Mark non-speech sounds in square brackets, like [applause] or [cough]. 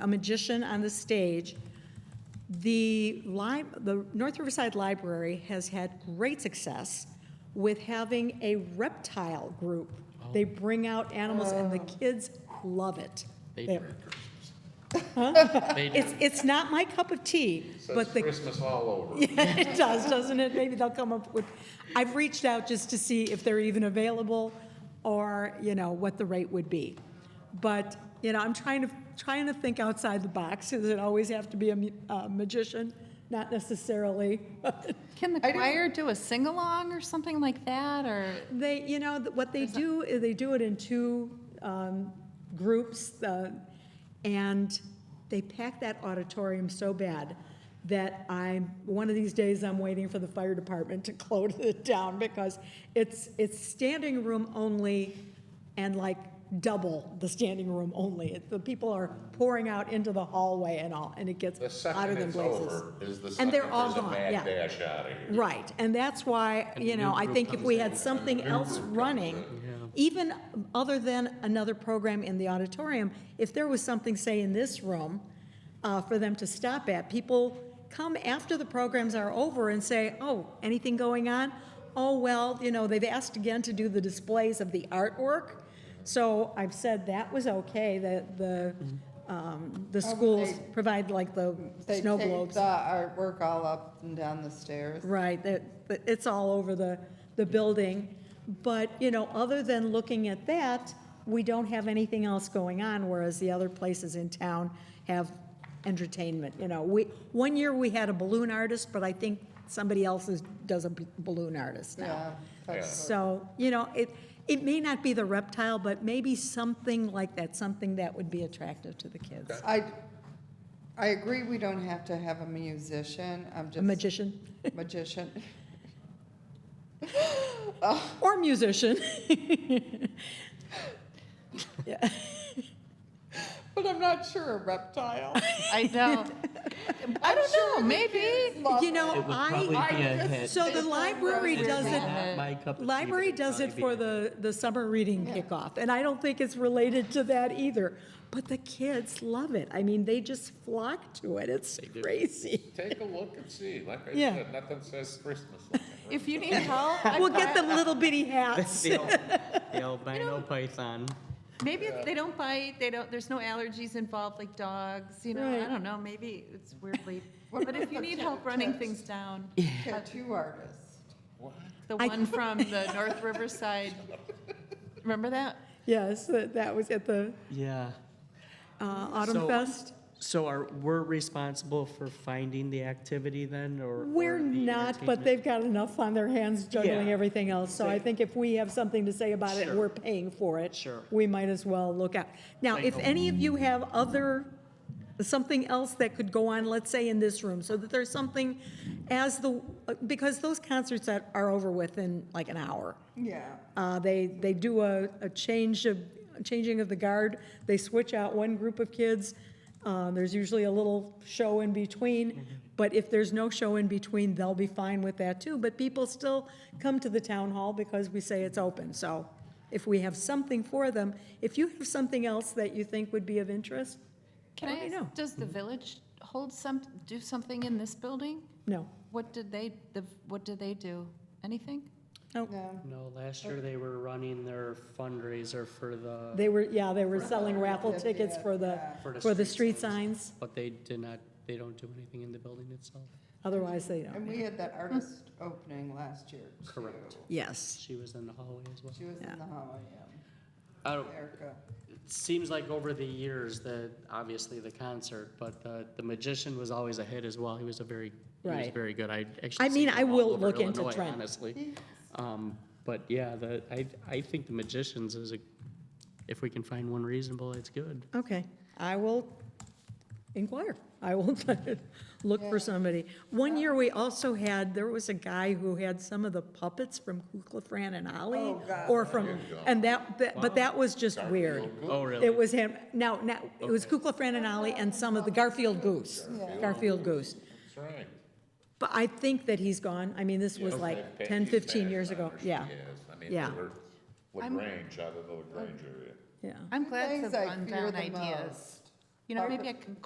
a magician on the stage. The li, the North Riverside Library has had great success with having a reptile group. They bring out animals and the kids love it. They They- do. They do. It's, it's not my cup of tea, So it's but the Christmas all over. [laughs] Yeah, it does, doesn't it? Maybe they'll come up with, I've reached out just to see if they're even available or, you know, what the rate would be. But, you know, I'm trying to, trying to think outside the box. Does it always have to be a mu- a magician? Not necessarily. [laughs] Can the I don't- choir do a sing-along or something like that, or? They, you know, th- what they do, is they do it in two um, groups, uh, and they pack that auditorium so bad that I'm, one of these days, I'm waiting for the fire department [laughs] to close it down, because it's, it's standing room only and like double the standing room only. It- The people are pouring out into the hallway and all, and it gets The hotter second than it's blazes. over is the And second they're all there's a gone, yeah. mad dash out of here. Right, and that's why, you know, I think if we had something else running, even other than another program in the auditorium, if there was something, say, in this room, uh, for them to stop at, people come after the programs are over and say, oh, anything going on? Oh, well, you know, they've asked again to do the displays of the artwork, so I've said that was okay, that the, um, the schools provide like the They snow take globes. The artwork all up and down the stairs. Right, that, that it's all over the, the building. But, you know, other than looking at that, we don't have anything else going on, whereas the other places in town have entertainment, you know. We, one year we had a balloon artist, but I think somebody else is, does a b- balloon artist now. Yeah. that's- So, you know, it, it may not be the reptile, but maybe something like that, something that would be attractive to the kids. I, I agree we don't have to have a musician, I'm just. A magician Magician. [laughs] or musician. [laughs] But I'm not sure a reptile. I know. I don't know, maybe. [laughs] Love You know, It would I. probably be a hit. So the Based on library Rose's does it, Yeah. Not my cup of tea, library but it'd does it probably for be- the, the summer reading kickoff, and I don't think it's related to that either. But the kids love it. I mean, they just flock to it. It's crazy. Take a look and see, like I Yeah. said, nothing says Christmas. like a If you need help, I- [laughs] We'll get them little [laughs] bitty hats. The al- the albino python. maybe if they don't bite, they don't, there's no allergies involved like dogs, you know, I Right. don't know, maybe it's weirdly. But if you need [laughs] help running things down, Tattoo artists. the I- one [laughs] from the North Riverside, remember that? Yes, that, that was at the Yeah. uh, Autumn So- Fest. So are, we're responsible for finding the activity then, or? We're or the not, but entertainment? they've got enough on their hands juggling Yeah. everything else, so I They- think if we have something to say about it, Sure. we're paying for it. Sure. We might as well look out. Now, Like if a- any of you have other, something else that could go on, let's say in this room, so that there's something as the, because those concerts that are over within like an hour. Yeah. Uh, They, they do a, a change of, changing of the guard. They switch out one group of kids. Uh, There's usually a little show in between. But if there's no show in between, they'll be fine with that too. But people still come to the town hall because we say it's open. So if we have something for them, if you have something else that you think would be of interest, Can Let me I know. ask, does the village hold some, do something in this building? no. What did they, the what did they do? Anything? No. No, last year they were running their fundraiser for the, They were, yeah, they were selling raffle Yeah, tickets yeah, for the, yeah. For the for the street street signs. but they did not, they don't do anything in the building itself. Otherwise, they don't. And we had that artist opening last year, too. Correct. Yes. She was in the hallway as well. She was Yeah. in the hallway, I yeah. don't, Erica. it seems like over the years that, obviously the concert, but the, the magician was always a hit as well. He was a very, he was Right. very good. I actually. I mean, seen him I all will over look into Illinois, Trent. Honestly. Um, but yeah, the, I, I think the magicians is a, if we can find one reasonable, it's good. Okay, I will inquire. I will [laughs] look for somebody. One year, we also had, there was a guy who had some of the puppets from Kukla, Fran, and Ollie. Oh, God. Or from, and that, that- but that was just weird. Oh, really? It was him, no, no, it was Kukla, Fran, and Ollie, and some of the Garfield Goose. Garfield Goose. That's right. But I think that he's gone. I mean, this was like Pat- 10, she's 15 back years on ago. her, she Yeah, is. I mean, Yeah. they were LaGrange, out of the LaGrange area. yeah. I'm glad Things to I run fear uh, down the ideas. most. You know, maybe I can